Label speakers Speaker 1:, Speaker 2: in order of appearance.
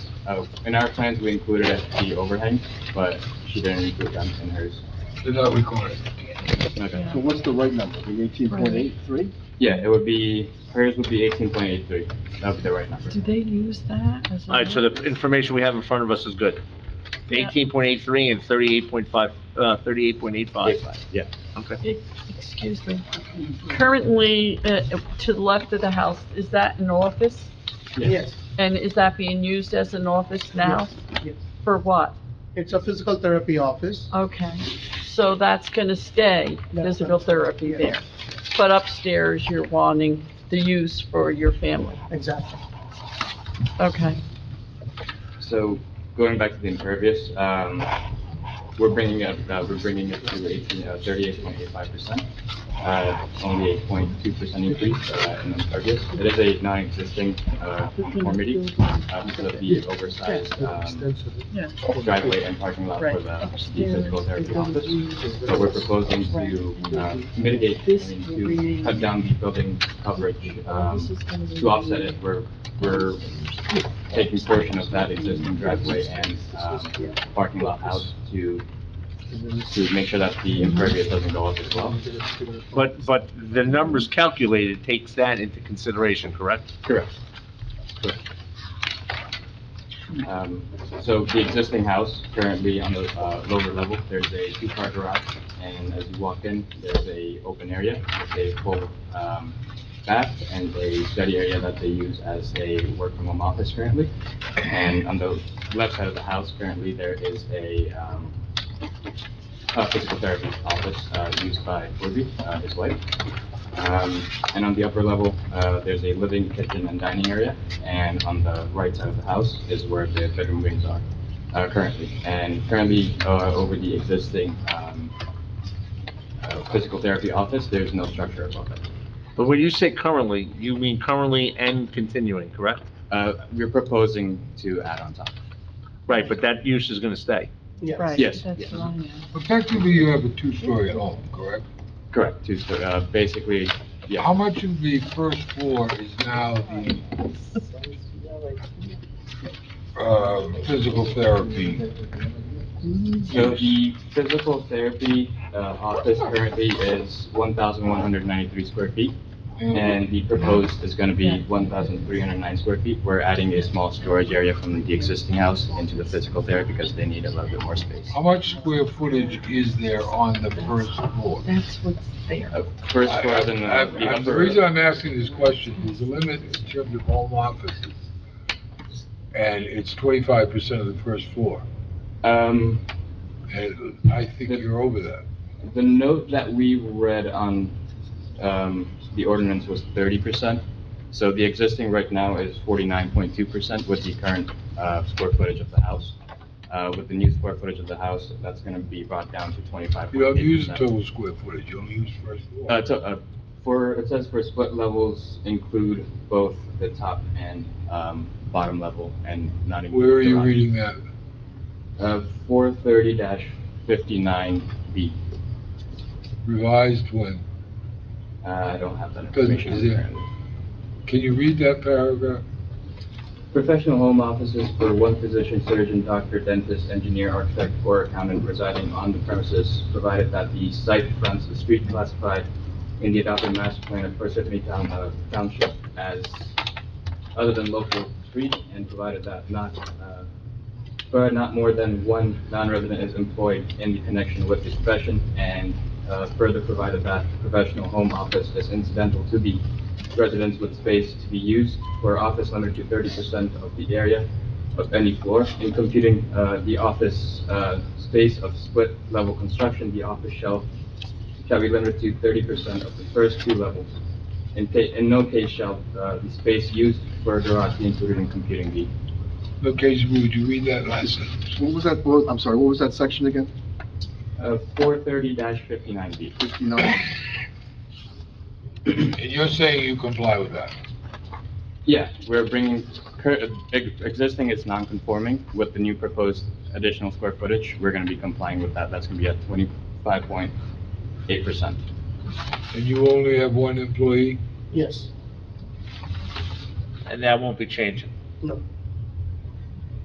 Speaker 1: Uh, in our plans, we included the overhang, but she didn't include them in hers.
Speaker 2: They're not recorded.
Speaker 3: So what's the right number, the eighteen point eight three?
Speaker 1: Yeah, it would be, hers would be eighteen point eight three. That would be the right number.
Speaker 4: Do they use that as a?
Speaker 5: All right, so the information we have in front of us is good.
Speaker 4: Yeah.
Speaker 5: Eighteen point eight three and thirty-eight point five, uh, thirty-eight point eight five.
Speaker 1: Yeah.
Speaker 5: Okay.
Speaker 4: E- Excuse me. Currently, uh, to the left of the house, is that an office?
Speaker 6: Yes,
Speaker 4: And is that being used as an office now?
Speaker 6: yes.
Speaker 4: For what?
Speaker 6: It's a physical therapy office.
Speaker 4: Okay, so that's gonna stay
Speaker 6: That's
Speaker 4: physical
Speaker 6: right.
Speaker 4: therapy
Speaker 6: Yeah.
Speaker 4: there. But upstairs, you're wanting the use for your family.
Speaker 6: Exactly.
Speaker 4: Okay.
Speaker 1: So going back to the impervious, um, we're bringing it, uh, we're bringing it to eighteen, uh, thirty-eight point eight five percent. Uh, only a point two percent increase, uh, in impervious. It is a non-existing, uh, conformity, uh, because of the oversized, um,
Speaker 4: Yeah.
Speaker 1: driveway and parking lot for the the physical therapy office. So we're proposing to, uh, mitigate, I mean, to cut down the building coverage, um, to offset it, we're, we're taking portion of that existing driveway and, um, parking lot out to, to make sure that the impervious doesn't go up as well.
Speaker 5: But, but the numbers calculated takes that into consideration, correct?
Speaker 1: Correct. Um, so the existing house currently on the, uh, lower level, there's a two-car garage, and as you walk in, there's a open area, with a full, um, bath and a study area that they use as a work-from-home office currently. And on the left side of the house currently, there is a, um, a physical therapy office, uh, used by Woody, uh, his wife. Um, And on the upper level, uh, there's a living kitchen and dining area, and on the right side of the house is where the bedroom wings are uh, currently. And currently, uh, over the existing um, uh, physical therapy office, there's no structure above it.
Speaker 5: But when you say currently, you mean currently and continuing, correct?
Speaker 1: Uh, We're proposing to add on top.
Speaker 5: Right, but that use is gonna stay.
Speaker 6: Yes.
Speaker 4: Right,
Speaker 1: Yes,
Speaker 4: that's
Speaker 1: yes.
Speaker 4: what I know.
Speaker 2: But Technically, you have a two-story home, correct?
Speaker 1: Correct. To, so, uh, basically,
Speaker 2: How
Speaker 1: yeah,
Speaker 2: much of the first floor is now the, um, physical therapy?
Speaker 1: so the physical therapy uh, office currently is 1,193 square feet. And the proposed is gonna be one thousand three hundred nine square feet. We're adding a small storage area from the existing house into the physical there because they need a little bit more space.
Speaker 2: How much square footage is there on the first floor?
Speaker 4: That's what's there.
Speaker 1: Uh, First floor is in
Speaker 2: I-
Speaker 1: uh, the
Speaker 2: I- The
Speaker 1: upper,
Speaker 2: reason I'm asking this question is the limit in terms of home offices, and it's twenty-five percent of the first floor,
Speaker 1: um,
Speaker 2: and I think you're over that.
Speaker 1: the note that we read on, um, the ordinance was thirty percent. So the existing right now is forty-nine point two percent with the current, uh, square footage of the house. Uh, with the new square footage of the house, that's gonna be brought down to twenty-five
Speaker 2: You
Speaker 1: point eight
Speaker 2: don't
Speaker 1: percent.
Speaker 2: use total square footage, you only use first floor.
Speaker 1: Uh, to, uh, for, it says for split levels include both the top and, um, bottom level and not include.
Speaker 2: Where are you
Speaker 1: garage.
Speaker 2: reading that?
Speaker 1: Uh, four thirty dash fifty-nine B.
Speaker 2: Revised one.
Speaker 1: Uh, I don't have that
Speaker 2: Doesn't-
Speaker 1: information.
Speaker 2: is it-
Speaker 1: currently.
Speaker 2: Can you read that paragraph?
Speaker 1: Professional home offices for one physician, surgeon, doctor, dentist, engineer, architect, or accountant residing on the premises, provided that the site fronts the street classified in the adopted master plan of Parsippany Town, uh, Township as, other than local street, and provided that not, uh, but not more than one non-resident is employed in the connection with the profession, and, uh, further provided that the professional home office is incidental to the residents with space to be used for office limited to thirty percent of the area of any floor. In computing, uh, the office, uh, space of split level construction, the office shall, shall be limited to thirty percent of the first two levels. In ca, in no case shall, uh, the space used for a garage be included in computing the
Speaker 2: Location, would you read that last sentence?
Speaker 3: What was that, bullet- I'm sorry, what was that section again?
Speaker 1: Uh, 430-59B.
Speaker 3: Fifty-nine?
Speaker 2: And you're saying you comply with that?
Speaker 1: Yeah, we're bringing, cur- ex- existing is non-conforming with the new proposed additional square footage. We're going to be complying with that. That's going to be at 25.8%.
Speaker 2: And you only have one employee?
Speaker 6: Yes.
Speaker 5: And that won't be changing.
Speaker 6: No.